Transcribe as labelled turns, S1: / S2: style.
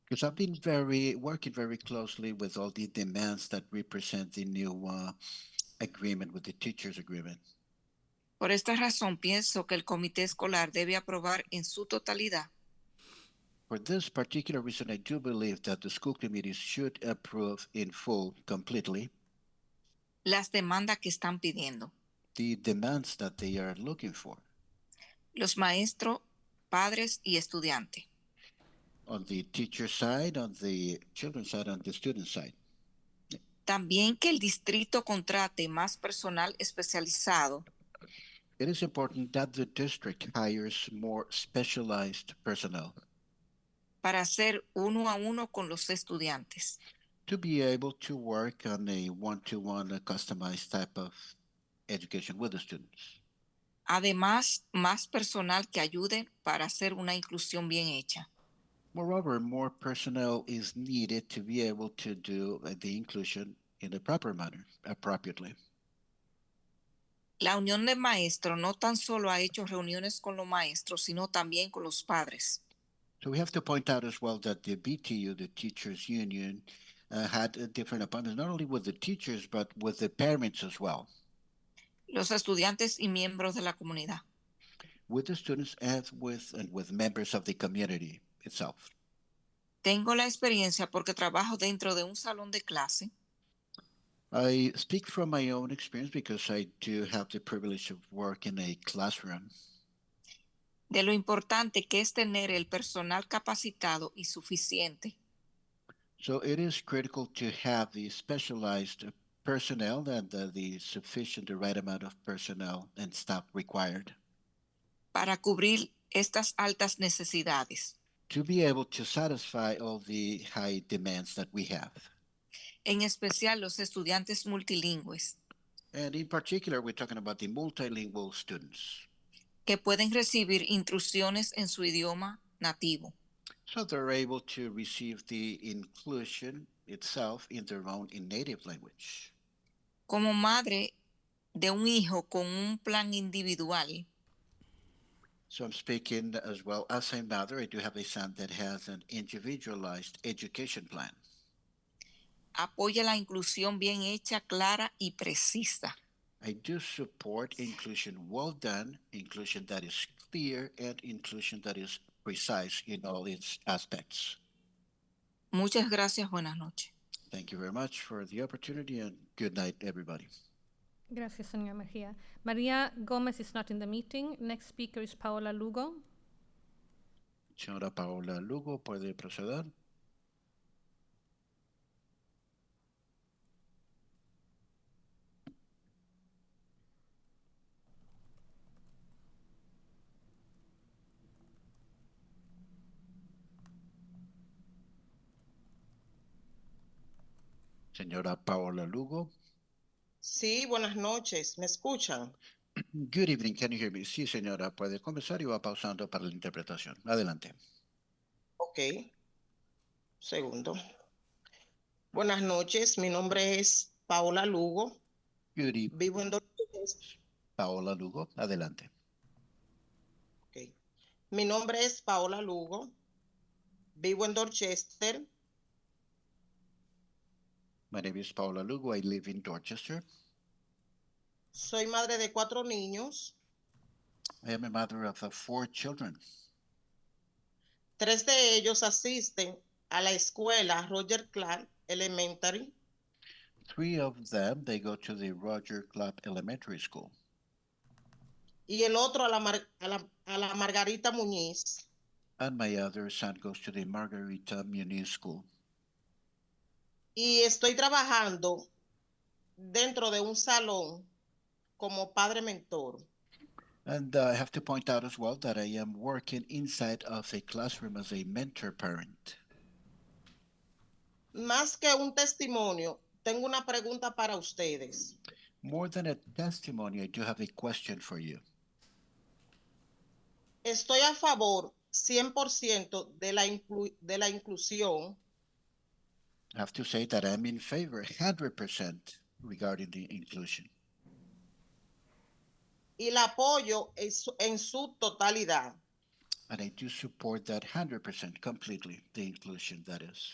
S1: Because I've been very working very closely with all the demands that represent the new uh, agreement with the teachers agreement.
S2: Por esta razón, pienso que el comité escolar debe aprobar en su totalidad
S1: For this particular reason, I do believe that the school committees should approve in full, completely,
S2: las demandas que están pidiendo.
S1: the demands that they are looking for
S2: Los maestros, padres y estudiantes.
S1: on the teacher side, on the children's side, on the student side.
S2: También que el distrito contrate más personal especializado
S1: It is important that the district hires more specialized personnel
S2: para hacer uno a uno con los estudiantes.
S1: to be able to work on a one-to-one uh, customized type of education with the students.
S2: Además, más personal que ayude para hacer una inclusión bien hecha.
S1: Moreover, more personnel is needed to be able to do uh, the inclusion in a proper manner, appropriately.
S2: La unión de maestros no tan solo ha hecho reuniones con los maestros, sino también con los padres.
S1: So we have to point out as well that the BTU, the teachers union, uh, had a different appointments, not only with the teachers, but with the parents as well,
S2: los estudiantes y miembros de la comunidad.
S1: with the students as with and with members of the community itself.
S2: Tengo la experiencia porque trabajo dentro de un salón de clase
S1: I speak from my own experience because I do have the privilege of work in a classroom
S2: de lo importante que es tener el personal capacitado y suficiente
S1: So it is critical to have the specialized personnel and the, the sufficient, the right amount of personnel and staff required
S2: para cubrir estas altas necesidades.
S1: to be able to satisfy all the high demands that we have.
S2: En especial los estudiantes multilingües
S1: And in particular, we're talking about the multilingual students.
S2: que pueden recibir instrucciones en su idioma nativo.
S1: So they're able to receive the inclusion itself in their own in native language.
S2: Como madre de un hijo con un plan individual,
S1: So I'm speaking as well as a mother. I do have a son that has an individualized education plan.
S2: apoya la inclusión bien hecha, clara y precisa.
S1: I do support inclusion well done, inclusion that is clear, and inclusion that is precise in all its aspects.
S2: Muchas gracias, buenas noches.
S1: Thank you very much for the opportunity and good night, everybody.
S3: Gracias, señora Mejía. María Gómez is not in the meeting. Next speaker is Paola Lugo.
S1: Señora Paola Lugo, puede proceder. Señora Paola Lugo.
S4: Sí, buenas noches. ¿Me escuchan?
S1: Good evening, can you hear me? Sí, señora, puede comenzar y va pausando para la interpretación. Adelante.
S4: Ok. Segundo. Buenas noches. Mi nombre es Paola Lugo.
S1: Good evening,
S4: Vivo en Dorchester.
S1: Paola Lugo. Adelante.
S4: Ok. Mi nombre es Paola Lugo. Vivo en Dorchester.
S1: My name is Paola Lugo. I live in Dorchester.
S4: Soy madre de cuatro niños.
S1: I am a mother of uh, four children.
S4: Tres de ellos asisten a la escuela Roger Clark Elementary.
S1: Three of them, they go to the Roger Club Elementary School,
S4: Y el otro a la, Mar- a la- a la Margarita Muñiz.
S1: and my other son goes to the Margarita Muniz School.
S4: y estoy trabajando dentro de un salón como padre mentor.
S1: And uh, I have to point out as well that I am working inside of a classroom as a mentor parent.
S4: Más que un testimonio, tengo una pregunta para ustedes.
S1: More than a testimony, I do have a question for you.
S4: Estoy a favor 100% de la, inclu- de la inclusión,
S1: I have to say that I'm in favor 100% regarding the inclusion,
S4: y la apoyo en su, en su totalidad.
S1: And I do support that 100% completely, the inclusion that is.